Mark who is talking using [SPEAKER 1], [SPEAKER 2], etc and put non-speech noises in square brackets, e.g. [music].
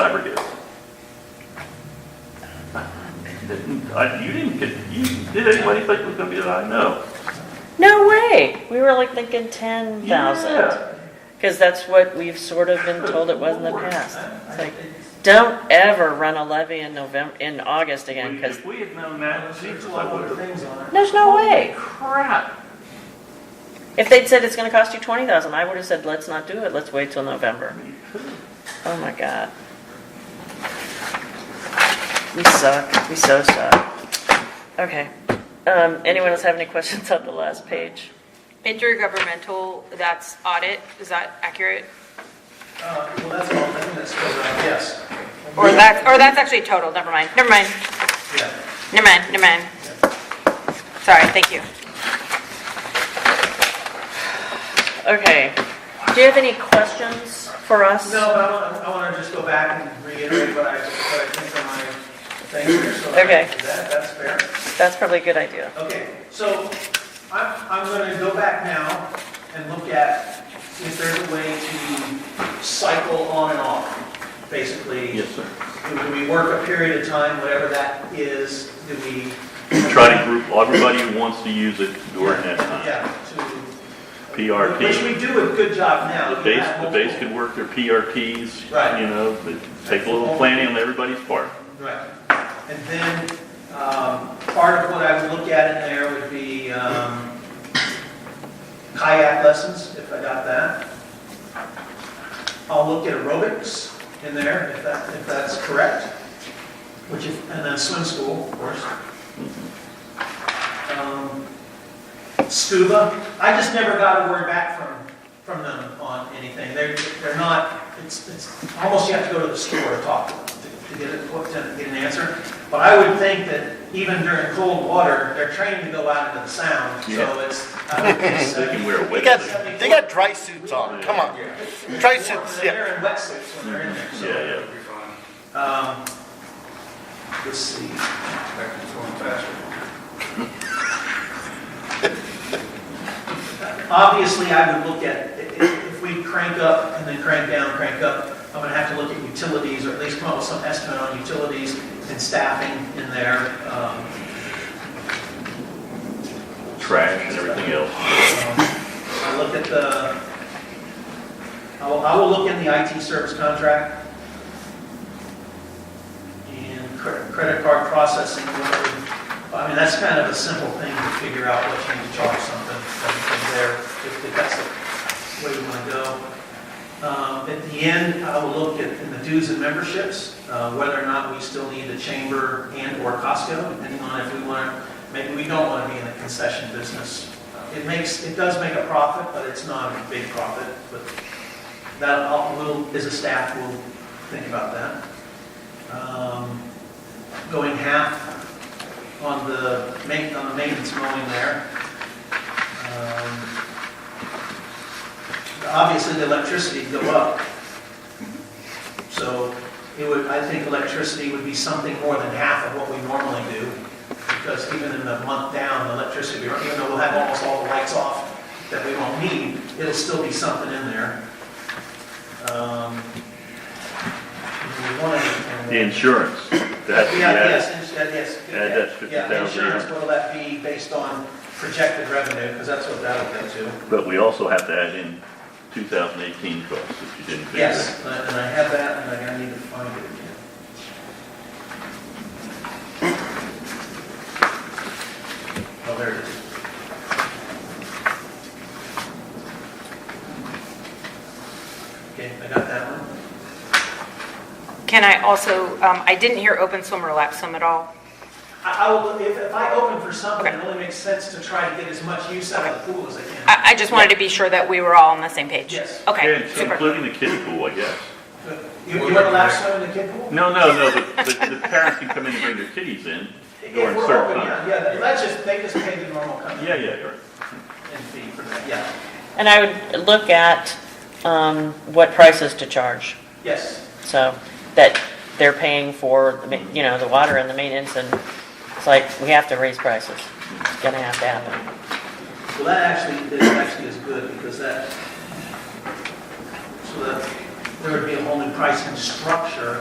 [SPEAKER 1] flabbergasted. I- You didn't, get- you, did anybody think it was gonna be that high? No.
[SPEAKER 2] No way. We were like thinking ten thousand,
[SPEAKER 1] Yeah.
[SPEAKER 2] because that's what we've sort of been told it was in the
[SPEAKER 1] Good lord.
[SPEAKER 2] past. It's like, don't ever run a levy in November, in August again, because
[SPEAKER 1] If we had known that, Jesus, I would have.
[SPEAKER 2] there's no way.
[SPEAKER 1] Crap.
[SPEAKER 2] If they'd said it's gonna cost you twenty thousand, I would have said, let's not do it, let's wait till November.
[SPEAKER 1] Me too.
[SPEAKER 2] Oh my god. We suck, we so suck. Okay, um, anyone else have any [laughs] questions on the last page?
[SPEAKER 3] Intergovernmental, that's audit, is that accurate?
[SPEAKER 4] Uh, Well, that's all, I think that's, good, uh, yes.
[SPEAKER 3] Or that's, or that's actually total, never mind, never mind,
[SPEAKER 4] Yeah.
[SPEAKER 3] never mind, never mind. Sorry, thank you.
[SPEAKER 2] Okay, do you have any questions for us?
[SPEAKER 4] No, but I want, I want to just go back and reiterate what I, what I think from my thing here, so. I-
[SPEAKER 2] Okay.
[SPEAKER 4] That, that's fair.
[SPEAKER 2] That's probably a good idea.
[SPEAKER 4] Okay, so I'm, I'm going to go back now and look at if there's a way to cycle on and off, basically.
[SPEAKER 1] Yes, sir.
[SPEAKER 4] Do do we work a period of time, whatever that is, do we?
[SPEAKER 1] Try to group everybody who wants to use it during that time.
[SPEAKER 4] Yeah, to. Which
[SPEAKER 1] PRT.
[SPEAKER 4] we do a good job now.
[SPEAKER 1] The
[SPEAKER 4] We
[SPEAKER 1] base,
[SPEAKER 4] have
[SPEAKER 1] the base
[SPEAKER 4] multiple-
[SPEAKER 1] could work their PRTs,
[SPEAKER 4] Right.
[SPEAKER 1] you know, but take a little planning on everybody's part.
[SPEAKER 4] Right. And then, um, part of what I would look at in there would be um, kayak lessons, if I got that. I'll look at aerobics in there, if that, if that's correct, which is, and then swim school, of course. Um, Scuba, I just never got a word back from, from them on anything. They're, they're not, it's, it's, almost you have to go to the store to talk to them to- to get it, to get an answer. But I would think that even during cold water, they're trained to go out into the sound,
[SPEAKER 1] Yeah.
[SPEAKER 4] so it's, I would guess,
[SPEAKER 1] They can
[SPEAKER 4] uh,
[SPEAKER 1] wear a
[SPEAKER 5] They
[SPEAKER 1] wet suit.
[SPEAKER 5] got, they got dry suits on, come on. Dry suits, yeah.
[SPEAKER 4] They're in wetsuits when they're in there, so.
[SPEAKER 1] Yeah, yeah.
[SPEAKER 4] Um, let's see. Obviously, I would look at, i- i- if we crank up and then crank down, crank up, I'm gonna have to look at utilities, or at least come up with some estimate on utilities and staffing in there. Um,
[SPEAKER 1] Trash and everything else.
[SPEAKER 4] I look at the, I will, I will look in the IT service contract and cre- credit card processing, whatever. I mean, that's kind of a simple thing to figure out what you need to charge something from from there, if if that's the way you want to go. Um, At the end, I will look at in the dues and memberships, uh, whether or not we still need a chamber and/or Costco, depending on if we want to maybe we don't want to be in the concession business. It makes, it does make a profit, but it's not a big profit, but that, I'll- we'll, as a staff, we'll think about that. Um, Going half on the ma, on the maintenance mowing there. Um, Obviously, the electricity go up. So it would, I think electricity would be something more than half of what we normally do because even in the month down, the electricity, even though we'll have almost all the lights off that we won't need, it'll still be something in there. Um, we wanted-
[SPEAKER 1] The insurance, that's,
[SPEAKER 4] Yeah,
[SPEAKER 1] yeah,
[SPEAKER 4] yes, ins- yeah, yes.
[SPEAKER 1] Yeah, that's
[SPEAKER 4] Yeah,
[SPEAKER 1] 50,000,
[SPEAKER 4] insurance,
[SPEAKER 1] yeah.
[SPEAKER 4] what'll that be based on projected revenue, because that's what that'll get to.
[SPEAKER 1] but we also have to add in 2018 costs if you didn't figure that.
[SPEAKER 4] Yes, and I- and I have that, and I- I need to find it again. Oh, there it is. Okay, I got that one.
[SPEAKER 3] Can I also, um, I didn't hear open swim or lap swim at all.
[SPEAKER 4] I, I will, if, if I open for something, it
[SPEAKER 3] Okay.
[SPEAKER 4] only makes sense to try to get as much use out of the pool as I can.
[SPEAKER 3] I, I just wanted to be sure that we were all on the same page.
[SPEAKER 4] Yes.
[SPEAKER 3] Okay,
[SPEAKER 1] Yeah,
[SPEAKER 3] super.
[SPEAKER 1] Including the kiddie pool, I guess.
[SPEAKER 4] You, you want to lap swim in the kid pool?
[SPEAKER 1] No, no, no, the, the, the parents can come in and bring their kiddies in
[SPEAKER 4] If
[SPEAKER 1] during
[SPEAKER 4] we're
[SPEAKER 1] certain
[SPEAKER 4] open,
[SPEAKER 1] time.
[SPEAKER 4] Yeah, yeah, that's just, they just pay the normal kind of.
[SPEAKER 1] Yeah, yeah, you're right.
[SPEAKER 4] And fee for that, yeah,
[SPEAKER 2] And I would look at um, what prices to charge,
[SPEAKER 4] yes.
[SPEAKER 2] so that they're paying for, the ma- you know, the water and the maintenance, and it's like, we have to raise prices. It's gonna have to happen.
[SPEAKER 4] Well, that actually, that actually is good, because that, so that, there would be a whole new pricing structure